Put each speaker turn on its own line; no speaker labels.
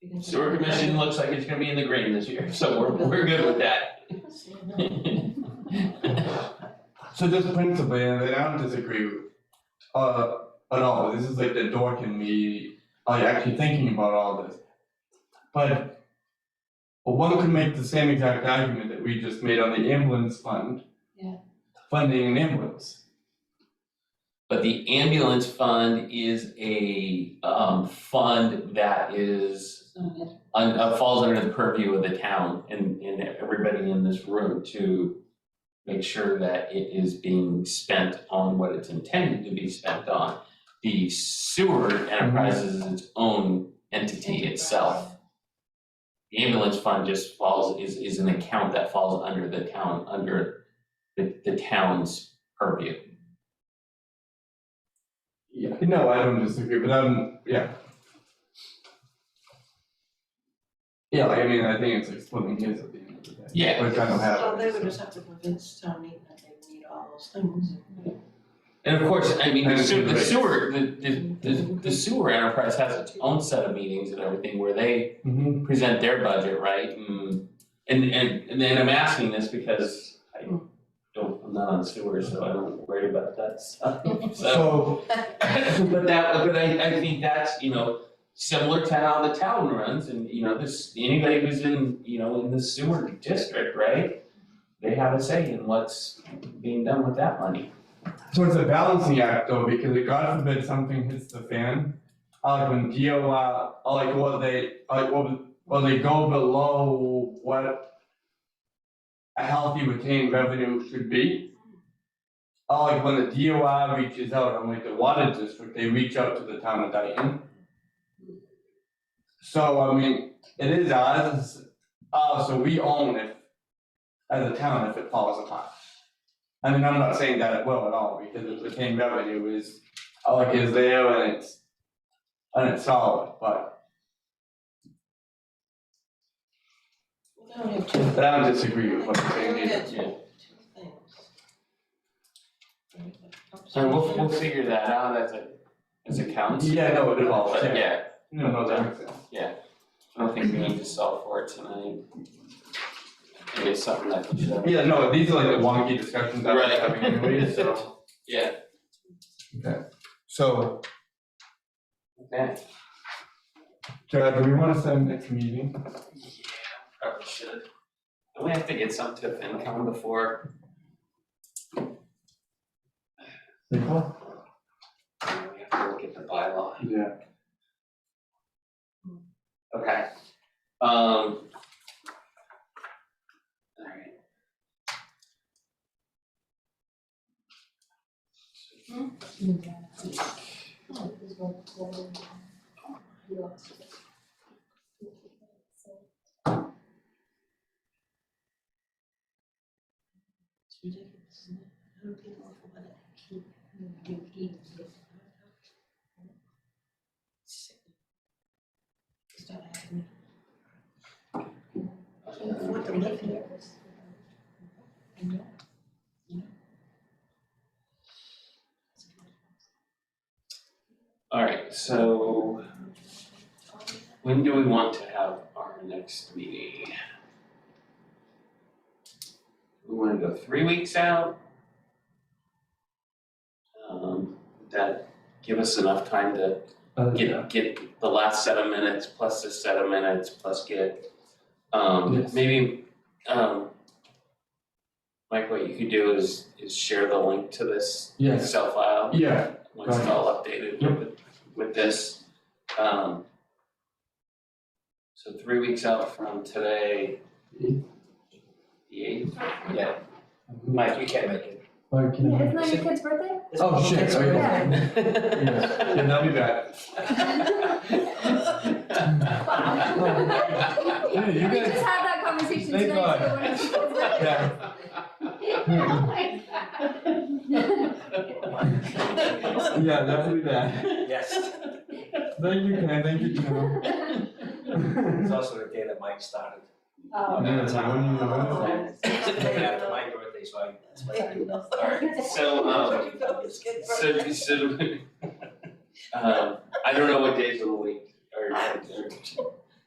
because-
Sewer commission looks like it's gonna be in the green this year, so we're, we're good with that.
So just principally, and I don't disagree with, uh, at all, this is like the dork in me, like uh, actually thinking about all this. But one could make the same exact argument that we just made on the ambulance fund.
Yeah.
Funding an ambulance.
But the ambulance fund is a, um, fund that is,
So,
un- uh, falls under the purview of the town and, and everybody in this room to make sure that it is being spent on what it's intended to be spent on. The sewer enterprise is its own entity itself. The ambulance fund just falls, is, is an account that falls under the town, under the, the town's purview.
Yeah. No, I don't disagree, but I'm, yeah. Yeah, like, I mean, I think it's like splitting hairs at the end of the day.
Yeah.
Which I don't have.
Well, they would
so.
just have to convince town meeting that they need all those things.
And of course, I mean, the
And
sewer, the
rates.
sewer, the, the, the- the sewer enterprise has its own set of meetings and everything where they
Mhm.
present their budget, right? And and and and then I'm asking this because I don't, I'm not on sewer, so I don't worry about that stuff, so.
So.
But that, but I I think that's, you know, similar to how the town runs and, you know, this, anybody who's in, you know, in the sewer district, right? They have a say in what's being done with that money.
So it's a balancing act though, because if God forbid something hits the fan, uh, like when DOR, uh, like what they, like what, well, they go below what a healthy retained revenue should be. Uh, like when the DOR reaches out, on like the water district, they reach out to the town of Dayton. So, I mean, it is ours, it's- uh, so we own it as a town if it falls apart. I mean, I'm not saying that it will at all, because the retained revenue is, uh, like, is there and it's, and it's solid, but,
We don't have two.
but I don't disagree with what you're saying
We
either.
have two, two things.
So we'll we'll figure that out as a as a council.
Yeah, no, it evolves,
But
yeah,
yeah,
no, no, that makes sense.
I don't think we need to solve for it tonight. Maybe it's something that we should have
Yeah, no, these are like the wonky discussions that we're
Right.
having anyways, so.
Yeah,
So,
okay.
Jared, do we wanna set a next meeting?
Probably should. We have to get some tip income before,
April?
we have to look at the bylaw.
Yeah.
Okay. Um. Alright.
It's ridiculous, isn't it? How do people afford it? Keep- do keep- It's not happening. Can't afford to live here. You know? You know?
Alright, so when do we want to have our next meeting? We wanna go three weeks out? Um, would that give us enough time to
Uh,
get get the last set of minutes plus this set of minutes plus get um
Yes.
maybe um Mike, what you could do is is share the link to this
Yes,
Excel file
yeah,
once it's all updated with with this. Um so three weeks out from today.
Eighth. Mm-hmm.
The eighth, yeah, Mike, you can't make
like,
Yeah,
yeah,
Isn't that your kid's birthday?
oh shit,
It's
okay.
okay.
Yes.
it.
yeah, that'll be bad. Yeah, you
We
guys,
just had that conversation
Thank
tonight, so when it's your kid's birthday.
yeah,
Oh my God.
yeah, that'll be bad.
Yes,
Thank you, Ken, thank you, Tim.
it's also the day that Mike started.
Oh.
Yeah, so when you-
It's the day after my birthday, so I, that's my.
Alright, so um So, so, um, I don't know what days of the week are, are